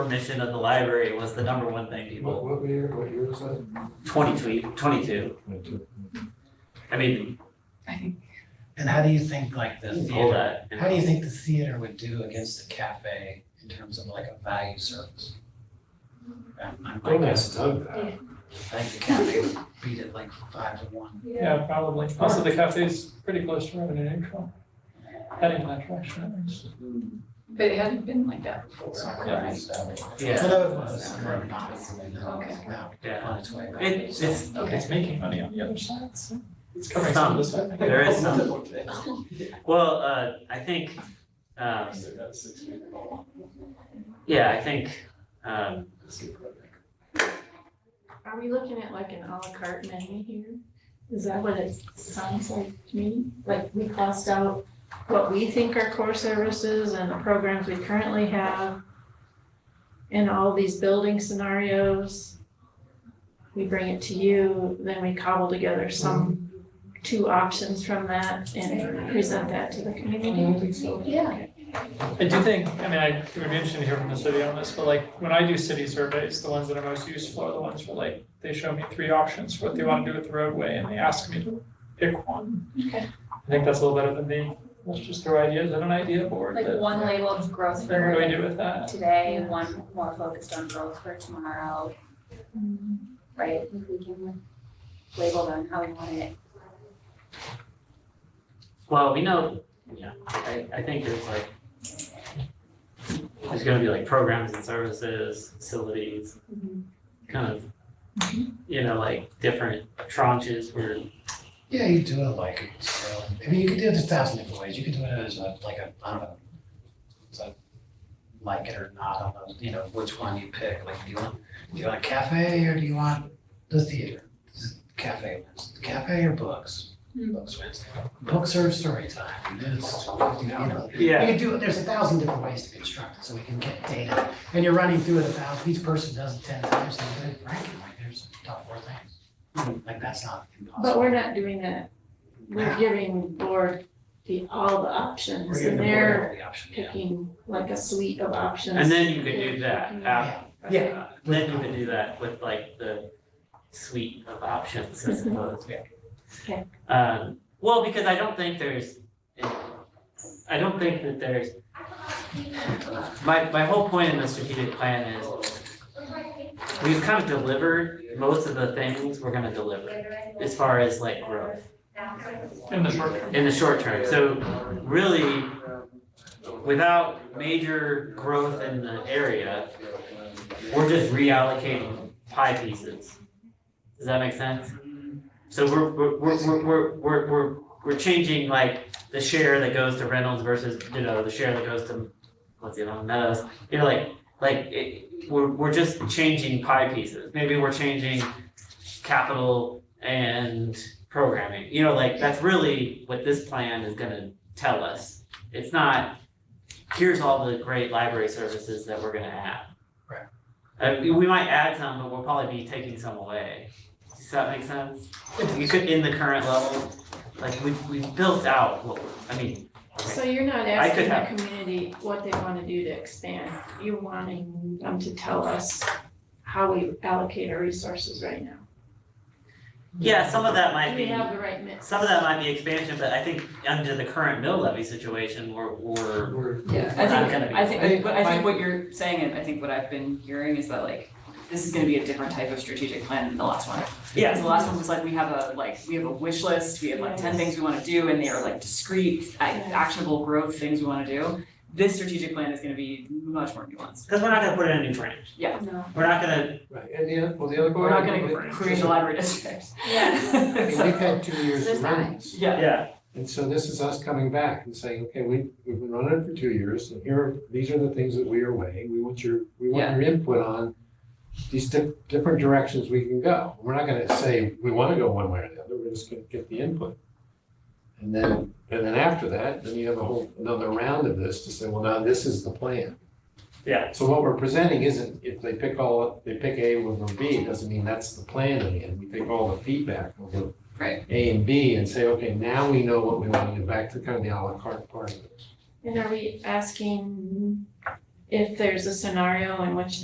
mission of the library was the number one thing What, people, what year, what year was that? twenty-two, twenty-two. I mean, I think And how do you think like the you can pull theater, that. Mm-hmm. how do you think the theater would do against the cafe in terms of like a value service? Um, I- I Don't guess, ask Doug that. I think the cafe would beat it like five to one. Yeah, probably. Also, the cafe's pretty close to revenue neutral. Heading in that direction. at least. But it hadn't been like that before. So, right? I Yeah, know it was, I remember not, Okay. no, yeah. on its way back. It, it's, Okay. It's making money on the other side, so it's covering some of this. I think. There is some. well, uh, I think, um, yeah, I think, um, Are we looking at like an à la carte menu here? Is that what it sounds like to me? Like we cost out what we think are core services and the programs we currently have and all these building scenarios. We bring it to you, then we cobble together some two options from that and present that to the community. Yeah. I do think, I mean, I, it would be interesting to hear from the city on this, but like, when I do city surveys, the ones that are most useful are the ones where like, they show me three options for what they wanna do with the roadway, and they ask me to pick one. Okay. I think that's a little better than the, let's just throw ideas at an idea board, Like that, one labeled growth then what do we for do with that? today, one more focused on growth for tomorrow. Right, if we can label them how we want it. well, we know, yeah, I, I think there's like, there's gonna be like programs and services, facilities, kind of, you know, like different tranches where Yeah, you do it like, so, I mean, you could do it a thousand different ways, you could do it as a, like a, I don't know. It's a, like it or not, I don't know, you know, which one you pick, like, do you want, do you want a cafe or do you want the theater? Cafe wins, cafe or books, Hmm. books wins, books are story time, and then it's, you know. You Yeah, could do it, there's a thousand different ways to construct it, so we can get data, and you're running through it a thousand, each person does it ten times, and then ranking, like, there's top four things. Like, that's not impossible. Hmm. But we're not doing that. We're giving the board the, all the options We're and giving the they're board the option, yeah. picking like a suite of options. and then you could do that after. Yeah. Then you could do that with like the suite of options, I suppose. Yeah. Okay. Um, well, because I don't think there's, I don't think that there's, my, my whole point in the strategic plan is we've kind of delivered most of the things we're gonna deliver as far as like growth. In the short term. in the short term. So really, without major growth in the area, we're just reallocating pie pieces. Does that make sense? So we're, we're, we're, we're, we're, we're, we're changing like the share that goes to Reynolds versus, you know, the share that goes to, what's the other one, Meadows? You know, like, like, it, we're, we're just changing pie pieces. Maybe we're changing capital and programming. You know, like that's really what this plan is gonna tell us. It's not, here's all the great library services that we're gonna have. Right. Uh, we- we might add some, but we'll probably be taking some away. Does that make sense? You could, in the current level, like we, we built out, what I mean, So you're not I could asking the community what they wanna do to expand, you're wanting them to tell us how we allocate our resources right now. yeah, some of that Do might we be, have the right mix? some of that might be expansion, but I think under the current mill levy situation, we're, we're, We're- Yeah, We're I not gonna think, be- I think, I I think but I my- think what you're saying, and I think what I've been hearing is that like, this is gonna be a different type of strategic plan than the last one. yeah, The last one was like, we have a, like, we have a wish list, we have like ten things we wanna do, and they are like discrete, ac- actionable growth things we wanna do. This strategic plan is gonna be much more nuanced. Because we're not gonna put it in a new branch. Yeah. No. We're not gonna, Right, and the, oth- well, the other We're part. not gonna create a library district. I mean, So- we've had two years This of side. runs, Yeah, yeah, and so this is us coming back and saying, okay, we, we've been running for two years, and here, are these are the things that we are weighing, we want your, we want Yeah. your input on these di- different directions we can go. We're not gonna say, we wanna go one way or the other, we're just gonna get the input. And then, and then after that, then you have a whole, another round of this to say, well, now this is the plan. Yeah. So what we're presenting isn't, if they pick all, they pick A over B, it doesn't mean that's the plan in the end. We take all the feedback over Right. A and B and say, okay, now we know what we want to do, back to kind of the à la carte part of it. And are we asking if there's a scenario in which